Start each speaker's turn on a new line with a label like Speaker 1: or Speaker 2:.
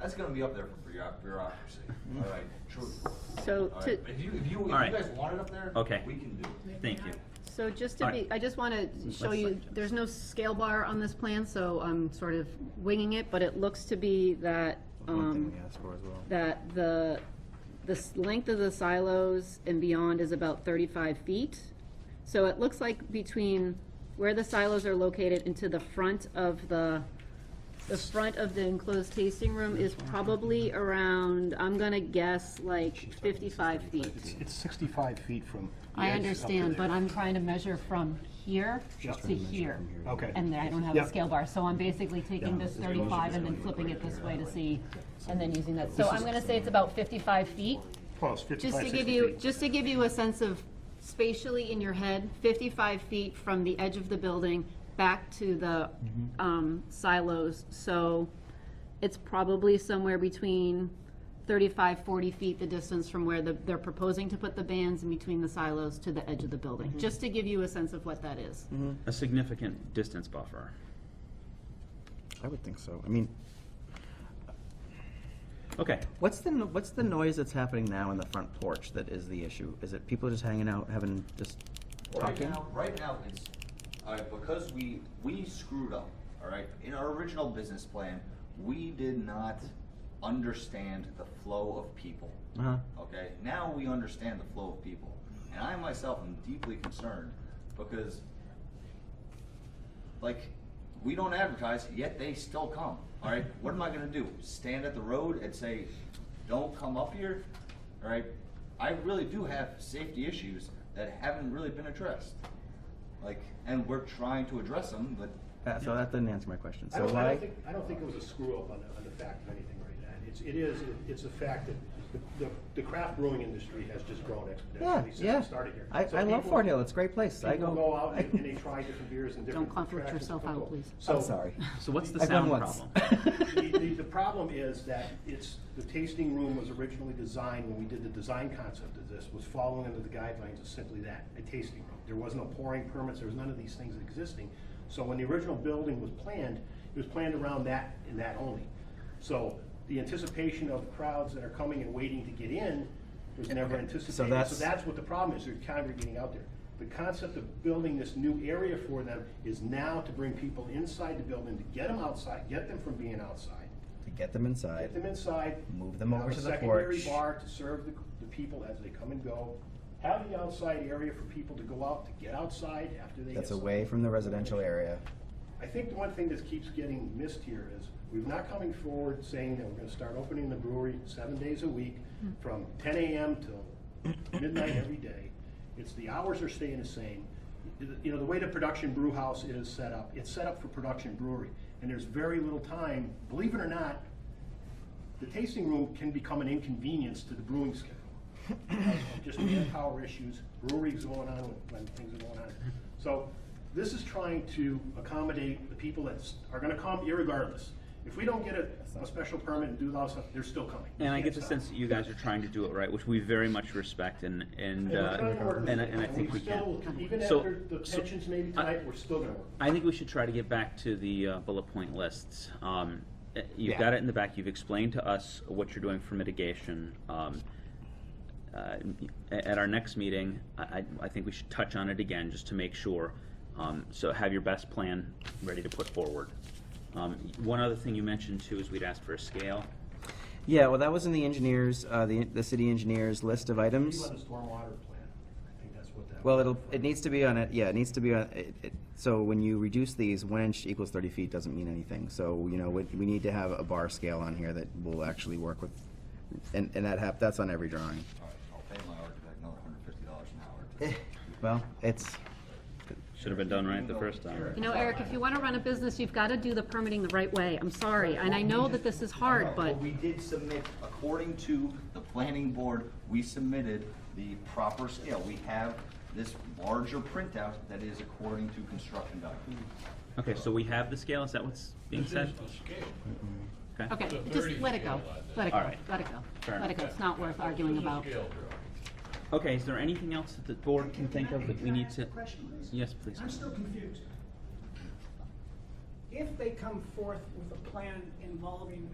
Speaker 1: That's gonna be up there for bureau- bureaucracy, all right, truthfully.
Speaker 2: So
Speaker 1: All
Speaker 2: to,
Speaker 1: right, If you, if you, if you
Speaker 3: All right.
Speaker 1: guys want it up there,
Speaker 3: Okay.
Speaker 1: we can do it.
Speaker 3: Thank you.
Speaker 2: so just to
Speaker 3: All
Speaker 2: be,
Speaker 3: right.
Speaker 2: I just want to show
Speaker 3: Let's-
Speaker 2: you, there's no scale bar on this plan, so I'm sort of winging it, but it looks to be that,
Speaker 4: One
Speaker 2: um,
Speaker 4: thing we asked for as well.
Speaker 2: that the, the s- length of the silos and beyond is about thirty-five feet. So it looks like between where the silos are located into the front of the, the front of the enclosed tasting room is probably around, I'm gonna guess, like fifty-five
Speaker 5: It's,
Speaker 2: feet.
Speaker 5: it's sixty-five feet from. the
Speaker 2: I
Speaker 5: edge up to
Speaker 2: understand,
Speaker 5: there.
Speaker 2: but I'm trying to measure from here
Speaker 5: Just
Speaker 2: to here.
Speaker 5: Okay.
Speaker 2: And then I don't have a
Speaker 5: Yep.
Speaker 2: scale bar, so I'm basically taking this thirty-five and then flipping it this way to see, and then using that. So I'm gonna say it's about fifty-five feet.
Speaker 5: Close,
Speaker 2: Just
Speaker 5: fifty-five,
Speaker 2: to
Speaker 5: sixty
Speaker 2: give you,
Speaker 5: feet.
Speaker 2: just to give you a sense of spatially in your head, fifty-five feet from the edge of the building back to the, um, silos. So it's probably somewhere between 35, 40 feet, the distance from where the, they're proposing to put the bands in between the silos to the edge of the building. Just to give you a sense of what that is.
Speaker 3: A significant distance buffer.
Speaker 4: I would think so. I mean,
Speaker 3: Okay,
Speaker 4: what's the, no- what's the noise that's happening now in the front porch that is the issue? Is it people just hanging out, having, just
Speaker 1: Right
Speaker 4: talking?
Speaker 1: now, right now, it's, all right, because we, we screwed up, all right? In our original business plan, we did not understand the flow of people.
Speaker 4: Uh-huh.
Speaker 1: Okay, now we understand the flow of people. And I myself am deeply concerned because, like, we don't advertise, yet they still come. All right, what am I gonna do? Stand at the road and say, don't come up here? All right, I really do have safety issues that haven't really been addressed. Like, and we're trying to address them, but
Speaker 4: Uh, So that didn't answer my question.
Speaker 6: I
Speaker 4: So
Speaker 6: don't, I
Speaker 4: why?
Speaker 6: don't think, I don't think it was a screw-up on the, on the fact of anything right now. It's, it is, it's a fact that the, the- the craft brewing industry has just grown
Speaker 4: Yeah,
Speaker 6: exponentially since
Speaker 4: yeah.
Speaker 6: it started here.
Speaker 4: I,
Speaker 6: So
Speaker 4: I love
Speaker 6: people-
Speaker 4: Fort Hill. It's a great place. I
Speaker 6: People go out
Speaker 4: I-
Speaker 6: and and they try different beers and different.
Speaker 2: conflict
Speaker 6: attractions
Speaker 2: yourself
Speaker 6: to
Speaker 2: out,
Speaker 6: people.
Speaker 2: please.
Speaker 6: So-
Speaker 4: I'm sorry.
Speaker 3: so what's the
Speaker 4: I've
Speaker 3: sound
Speaker 4: gone once.
Speaker 3: problem?
Speaker 6: The, the, the problem is that it's, the tasting room was originally designed, when we did the design concept of this, was following under the guidelines of simply that, a tasting room. There was no pouring permits, there was none of these things existing. So when the original building was planned, it was planned around that and that only. So the anticipation of crowds that are coming and waiting to get in was never anticipated. So
Speaker 4: that's-
Speaker 6: that's what the problem is, they're congregating out there. The concept of building this new area for them is now to bring people inside the building, to get them outside, get them from being outside,
Speaker 4: To get them inside.
Speaker 6: get them inside.
Speaker 4: Move them over
Speaker 6: have a
Speaker 4: to the
Speaker 6: Secondary
Speaker 4: porch.
Speaker 6: bar to serve the, the people as they come and go. Have the outside area for people to go out, to get outside after they get.
Speaker 4: That's
Speaker 6: some-
Speaker 4: away from the residential area.
Speaker 6: I think the one thing that keeps getting missed here is, we're not coming forward saying that we're gonna start opening the brewery seven days a week, from ten AM till midnight every day. It's, the hours are staying the same. You know, the way the production brew house is set up, it's set up for production brewery, and there's very little time, believe it or not, the tasting room can become an inconvenience to the brewing schedule. because of Just manpower issues, breweries going on when- when things are going on. So this is trying to accommodate the people that s- are gonna come irregardless. If we don't get a, a special permit and do all that stuff, they're still coming.
Speaker 3: And I get the
Speaker 6: Can't stop.
Speaker 3: sense that you guys are trying to do it right, which we very much respect and, and,
Speaker 6: And we're
Speaker 3: uh,
Speaker 6: trying to work with
Speaker 3: and I-
Speaker 6: it,
Speaker 3: and I think we
Speaker 6: still-
Speaker 3: can.
Speaker 6: Even
Speaker 3: So-
Speaker 6: after the
Speaker 3: so-
Speaker 6: tensions maybe tonight, we're still gonna work.
Speaker 3: I think we should try to get back to the uh, bullet point lists. Um, eh, You've got it in the back, you've explained to us what you're doing for mitigation. Um, uh, a- At our next meeting, I, I- I think we should touch on it again, just to make sure. Um, So have your best plan ready to put forward. Um, One other thing you mentioned too is we'd asked for a scale.
Speaker 4: Yeah, well, that was in the engineers, uh, the, the city engineers list of
Speaker 6: You
Speaker 4: items.
Speaker 6: want a stormwater plan, I think that's what that.
Speaker 4: Well, it'll, it needs to be on it, yeah, it needs to be on, it, it, so when you reduce these, one inch equals thirty feet doesn't mean anything. So, you know, we, we need to have a bar scale on here that will actually work with, and, and that hap, that's on every drawing.
Speaker 1: all right, I'll pay my architect another hundred fifty dollars an hour. to-
Speaker 4: Well, it's,
Speaker 3: Should have been done right the first time.
Speaker 2: You know, Eric, if you want to run a business, you've got to do the permitting the right way. I'm sorry, and I know that this is hard, but.
Speaker 1: we did submit, according to the planning board, we submitted the proper scale. We have this larger printout that is according to construction documents.
Speaker 3: Okay, so we have the scale, is that what's being said?
Speaker 2: Okay, just let it go, let it
Speaker 3: All
Speaker 2: go,
Speaker 3: right.
Speaker 2: let it go,
Speaker 3: Fair
Speaker 2: let it go, it's not worth arguing about.
Speaker 3: Okay, is there anything else that the board can think of that we need to? Yes, please.
Speaker 7: I'm still confused. If they come forth with a plan involving